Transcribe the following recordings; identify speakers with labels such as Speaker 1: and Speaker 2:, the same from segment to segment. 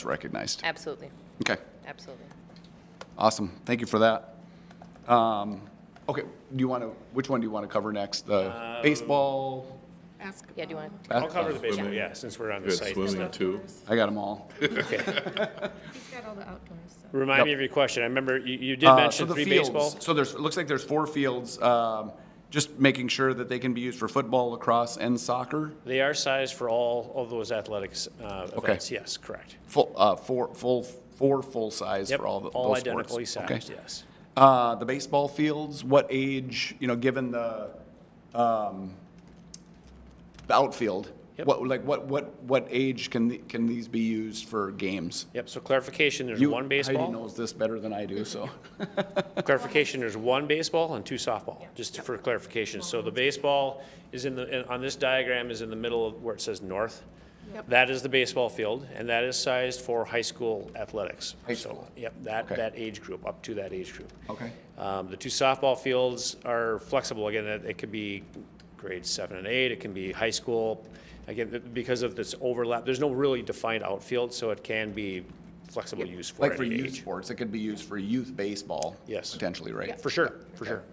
Speaker 1: it's recognized.
Speaker 2: Absolutely,
Speaker 1: Okay,
Speaker 2: absolutely.
Speaker 1: awesome. Thank you for that. Um, Okay, do you want to, which one do you want to cover next? The baseball?
Speaker 2: Yeah, do you want?
Speaker 1: bas-
Speaker 3: Um, I'll cover the baseball, yeah, since we're on the
Speaker 4: Good
Speaker 3: site.
Speaker 4: swimming too.
Speaker 1: I got them all.
Speaker 5: He's got all the outdoors, so.
Speaker 3: Remind me of your question. I remember you, you did
Speaker 1: Uh, so
Speaker 3: mention
Speaker 1: the
Speaker 3: three
Speaker 1: fields.
Speaker 3: baseball.
Speaker 1: So there's, it looks like there's four fields, um, just making sure that they can be used for football, lacrosse, and soccer.
Speaker 3: They are sized for all of those athletics uh, events, yes, correct.
Speaker 1: Full, uh, four, full, four full size
Speaker 3: Yep,
Speaker 1: for all the,
Speaker 3: all
Speaker 1: those sports.
Speaker 3: identically
Speaker 1: Okay.
Speaker 3: sized, yes.
Speaker 1: Uh, the baseball fields, what age, you know, given the, um, the outfield?
Speaker 3: Yep.
Speaker 1: What, like, what, what, what age can, the- can these be used for games?
Speaker 3: Yep, so clarification, there's
Speaker 1: You-
Speaker 3: one
Speaker 1: Heidi
Speaker 3: baseball.
Speaker 1: knows this better than I do, so.
Speaker 3: Clarification, there's one baseball and two softball, just for clarification. So the baseball is in the, in- on this diagram is in the middle of where it says north. That is the baseball field, and that is sized for high school athletics.
Speaker 1: High
Speaker 3: So,
Speaker 1: school.
Speaker 3: Yep, that,
Speaker 1: Okay.
Speaker 3: that age group, up to that age group.
Speaker 1: Okay.
Speaker 3: Um, The two softball fields are flexible. Again, it it could be grade seven and eight, it can be high school. Again, th- because of this overlap, there's no really defined outfield, so it can be flexible use for
Speaker 1: Like for
Speaker 3: any
Speaker 1: youth
Speaker 3: age.
Speaker 1: sports, it could be used for youth baseball.
Speaker 3: Yes.
Speaker 1: Potentially, right?
Speaker 3: For sure, for sure.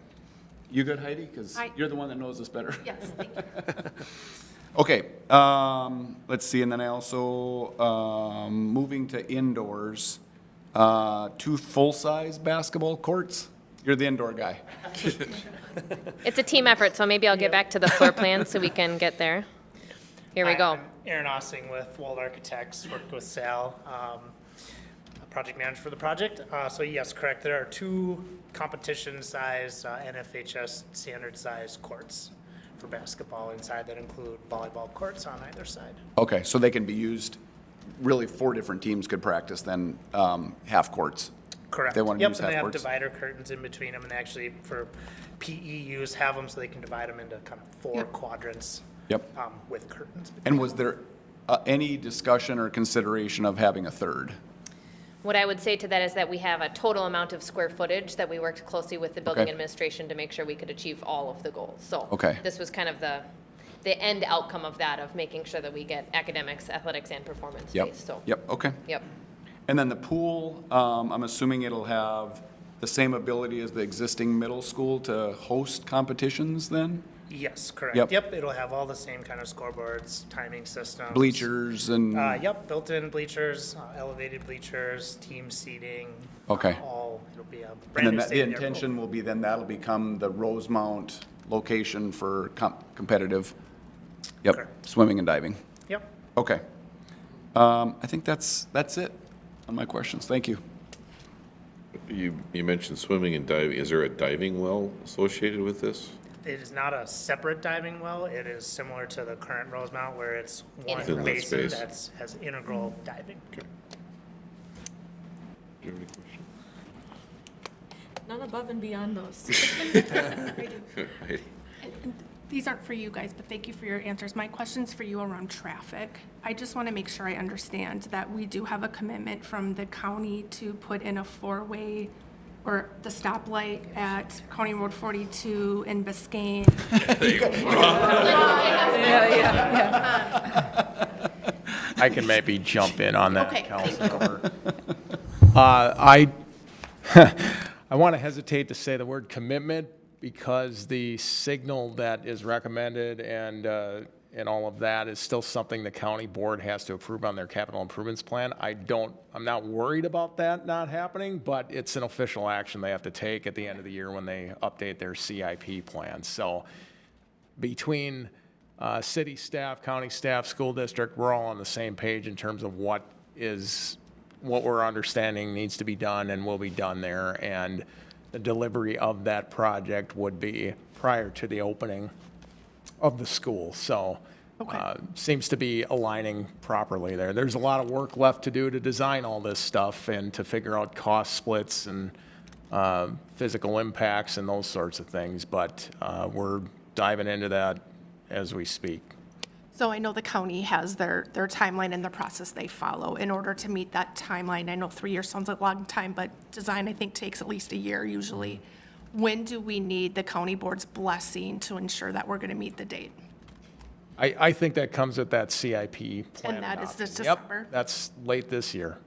Speaker 1: You good, Heidi? Because
Speaker 5: I-
Speaker 1: you're the one that knows this better.
Speaker 5: Yes, thank you.
Speaker 1: Okay, um, let's see, and then I also, um, moving to indoors, uh, two full-size basketball courts? You're the indoor guy.
Speaker 2: It's a team effort, so maybe I'll get back to the floor plan so we can get there. Here we
Speaker 6: Hi,
Speaker 2: go.
Speaker 6: I'm Aaron Ossing with Wald Architects, worked with Sal, um, a project manager for the project. Uh, so yes, correct, there are two competition-sized, uh, NFHS standard-sized courts for basketball inside that include volleyball courts on either side.
Speaker 1: Okay, so they can be used, really, four different teams could practice then, um, half courts.
Speaker 6: Correct.
Speaker 1: They want to
Speaker 6: Yep,
Speaker 1: use
Speaker 6: and they
Speaker 1: half
Speaker 6: have
Speaker 1: courts.
Speaker 6: divider curtains in between them and actually for PE use, have them so they can divide them into kind of four quadrants.
Speaker 1: Yep.
Speaker 6: Um, with curtains. between
Speaker 1: And was there, uh, any discussion or consideration of having a third?
Speaker 2: What I would say to that is that we have a total amount of square footage that we worked closely with the building
Speaker 1: Okay.
Speaker 2: administration to make sure we could achieve all of the goals. So
Speaker 1: Okay.
Speaker 2: this was kind of the, the end outcome of that, of making sure that we get academics, athletics, and performance
Speaker 1: Yep,
Speaker 2: based, so.
Speaker 1: yep, okay.
Speaker 2: Yep.
Speaker 1: And then the pool, um, I'm assuming it'll have the same ability as the existing middle school to host competitions then?
Speaker 6: Yes, correct.
Speaker 1: Yep.
Speaker 6: Yep, it'll have all the same kind of scoreboards, timing systems.
Speaker 1: Bleachers and?
Speaker 6: Uh, yep, built-in bleachers, uh, elevated bleachers, team seating.
Speaker 1: Okay.
Speaker 6: All, it'll be a
Speaker 1: And
Speaker 6: brand
Speaker 1: then
Speaker 6: new
Speaker 1: that- the
Speaker 6: stadium.
Speaker 1: intention will be then that'll become the Rosemount location for com- competitive, yep,
Speaker 6: Correct.
Speaker 1: swimming and diving.
Speaker 6: Yep.
Speaker 1: Okay. Um, I think that's, that's it on my questions. Thank you.
Speaker 4: You, you mentioned swimming and diving. Is there a diving well associated with this?
Speaker 6: It is not a separate diving well. It is similar to the current Rosemount where it's
Speaker 2: Integral.
Speaker 6: one
Speaker 4: Inlet
Speaker 6: basin
Speaker 4: space.
Speaker 6: that's, has integral diving.
Speaker 4: Do you have any questions?
Speaker 5: None above and beyond those.
Speaker 4: Right.
Speaker 7: These aren't for you guys, but thank you for your answers. My question's for you around traffic. I just want to make sure I understand that we do have a commitment from the county to put in a four-way or the stoplight at County Road 42 in Biscayne.
Speaker 8: I can maybe jump in on that,
Speaker 7: Okay, thank
Speaker 8: Councilor. Uh, I, I want to hesitate to say the word commitment because the signal that is recommended and, uh, and all of that is still something the county board has to approve on their capital improvements plan. I don't, I'm not worried about that not happening, but it's an official action they have to take at the end of the year when they update their CIP plan. So between uh, city staff, county staff, school district, we're all on the same page in terms of what is, what we're understanding needs to be done and will be done there. And the delivery of that project would be prior to the opening of the school. So uh, seems to be aligning properly there. There's a lot of work left to do to design all this stuff and to figure out cost splits and uh, physical impacts and those sorts of things. But uh, we're diving into that as we speak.
Speaker 7: So I know the county has their, their timeline and the process they follow in order to meet that timeline. I know three years sounds like a long time, but design, I think, takes at least a year usually. When do we need the county board's blessing to ensure that we're going to meet the date?
Speaker 8: I, I think that comes with that CIP plan
Speaker 7: And that is this
Speaker 8: adoption.
Speaker 7: December?
Speaker 8: Yep, that's late this year.